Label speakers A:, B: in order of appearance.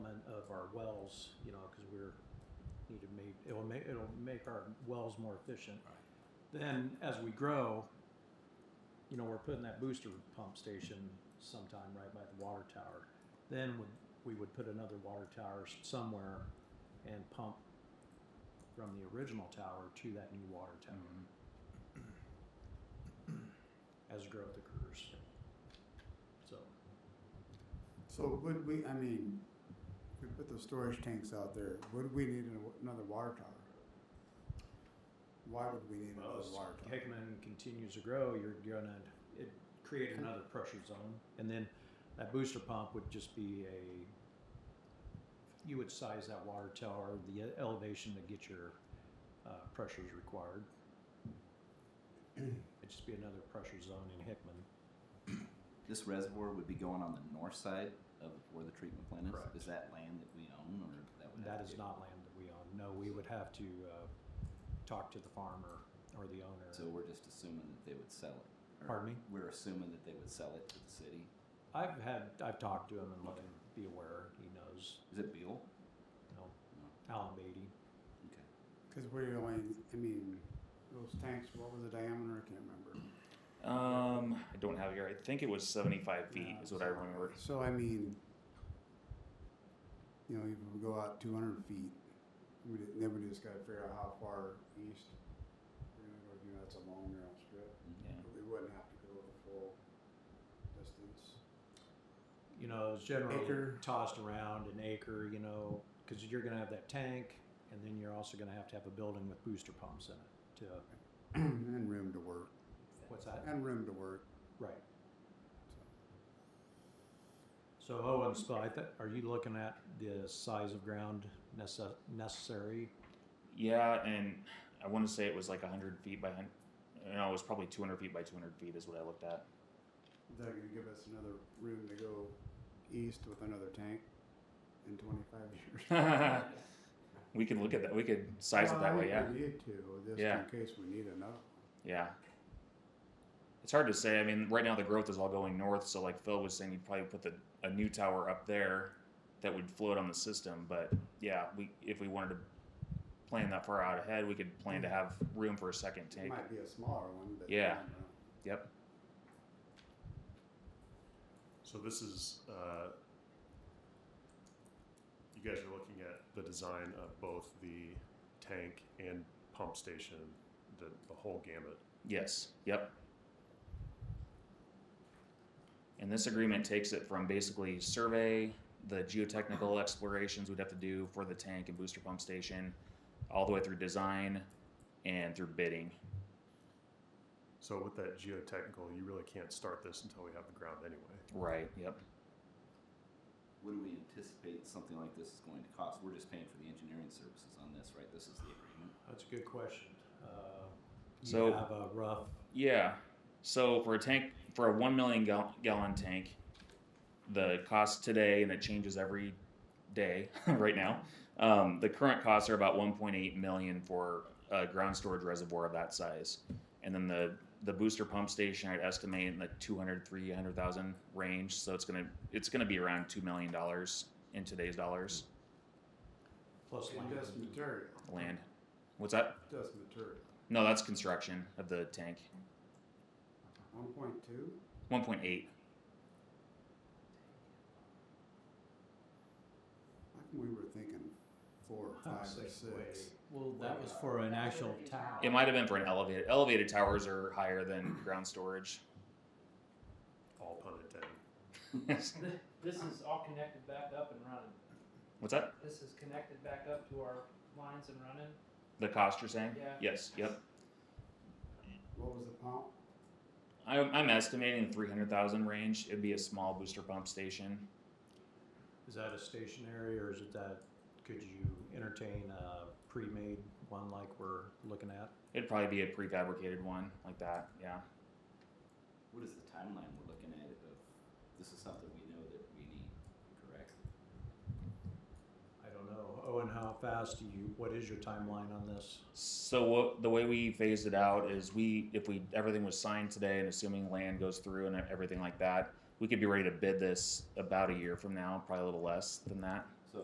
A: wells, you know, because we're, need to make, it'll make, it'll make our wells more efficient.
B: Right.
A: Then as we grow, you know, we're putting that booster pump station sometime right by the water tower. Then would, we would put another water tower s- somewhere and pump from the original tower to that new water
C: Um,
A: tower. As growth occurs. So,
D: So would we, I mean, we put those storage tanks out there, would we need an- another water tower? Why would we need
A: well,
D: another
A: as
D: water tower?
A: Hickman continues to grow, you're gonna, it create another pressure zone. And then that booster pump would just be a, you would size that water tower, the elevation to get your, uh, pressures required. It'd just be another pressure zone in Hickman.
C: This reservoir would be going on the north side of where the treatment plant is.
A: Correct.
C: Is that land that we own, or that would
A: That
C: have to
A: is
C: be-
A: not land that we own. No, we would have to, uh, talk to the farmer or the owner.
C: So we're just assuming that they would sell it. or
A: Pardon me?
C: We're assuming that they would sell it to the city.
A: I've had, I've talked to him and let him be aware. He knows,
C: Is it Beal?
A: you know,
C: No.
A: Alan Beatty.
C: Okay.
D: Because we're only, I mean, those tanks, what was the diameter, I can't remember.
E: Um, I don't have it here. I think it was 75 feet, is what I remember.
D: So I mean, you know, even if we go out two hundred feet, we, ju- then we just gotta figure out how far east we're gonna go, you know, that's a long narrow strip.
C: Mm-hmm.
E: Yeah.
D: We wouldn't have to go the full distance.
A: you know, it's generally
D: Acre.
A: tossed around an acre, you know, because you're going to have that tank, and then you're also going to have to have a building with booster pumps in it. To
D: And room to work,
A: what's that?
D: and room to work.
A: Right. So Owen Spa, I thi- are you looking at the size of ground necess- necessary?
E: Yeah, and I want to say it was like 100 feet by 100. No, it was probably 200 feet by 200 feet, is what I looked at.
D: Is that gonna give us another room to go east with another tank in twenty-five years?
E: we could look at that. We could size it that
D: Well, I
E: way, yeah.
D: think We need to, just
E: Yeah.
D: in case we need another.
E: Yeah. It's hard to say. I mean, right now the growth is all going north, so like Phil was saying, you'd probably put the, a new tower up there that would float on the system. But yeah, we if we wanted to plan that far out ahead, we could plan to have room for a second
D: It
E: tank.
D: might be a smaller one, but.
E: Yeah. Yep.
F: So this is, uh, you guys are looking at the design of both the tank and pump station, the, the whole gamut.
E: Yes. Yep. And this agreement takes it from basically survey, the geotechnical explorations we'd have to do for the tank and booster pump station, all the way through design and through bidding.
F: So with that geotechnical, you really can't start this until we have the ground anyway.
E: Right. Yep.
C: What do we anticipate something like this is going to cost? We're just paying for the engineering services on this, right? This is the agreement.
A: That's a good question. Uh, you
E: So-
A: have a rough
E: Yeah. So for a tank, for a one million gal- gallon tank, the cost today, and it changes every day right now. Um, the current costs are about 1.8 million for a ground storage reservoir of that size, and then the the booster pump station I'd estimate in the 200 300,000 range. So it's gonna it's gonna be around two million dollars in today's dollars.
A: plus
D: And just
A: land.
D: material,
E: Land. What's that?
D: just material.
E: No, that's construction of the tank.
D: One point two?
E: 1.8.
D: How come we were thinking four, five, or six?
A: Well, that was for an actual tower.
E: It might have been for an elevated. Elevated towers are higher than ground storage.
F: All pun intended.
E: What's
G: This is all connected back up and running.
E: that?
G: This is connected back up to our lines and running.
E: The cost you're saying?
G: Yeah.
E: Yes. Yep.
D: What was the pump?
E: I'm, I'm estimating the 300,000 range. It'd be a small booster pump station.
A: Is that a stationary or is it that, could you entertain a pre-made one like we're looking at?
E: It'd probably be a prefabricated one like that. Yeah.
C: What is the timeline we're looking at of, this is something we know that we need, correct?
A: I don't know. Owen, how fast do you, what is your timeline on this?
E: So what, the way we phased it out is we, if we everything was signed today and assuming land goes through and everything like that, we could be ready to bid this about a year from now, probably a little less than that.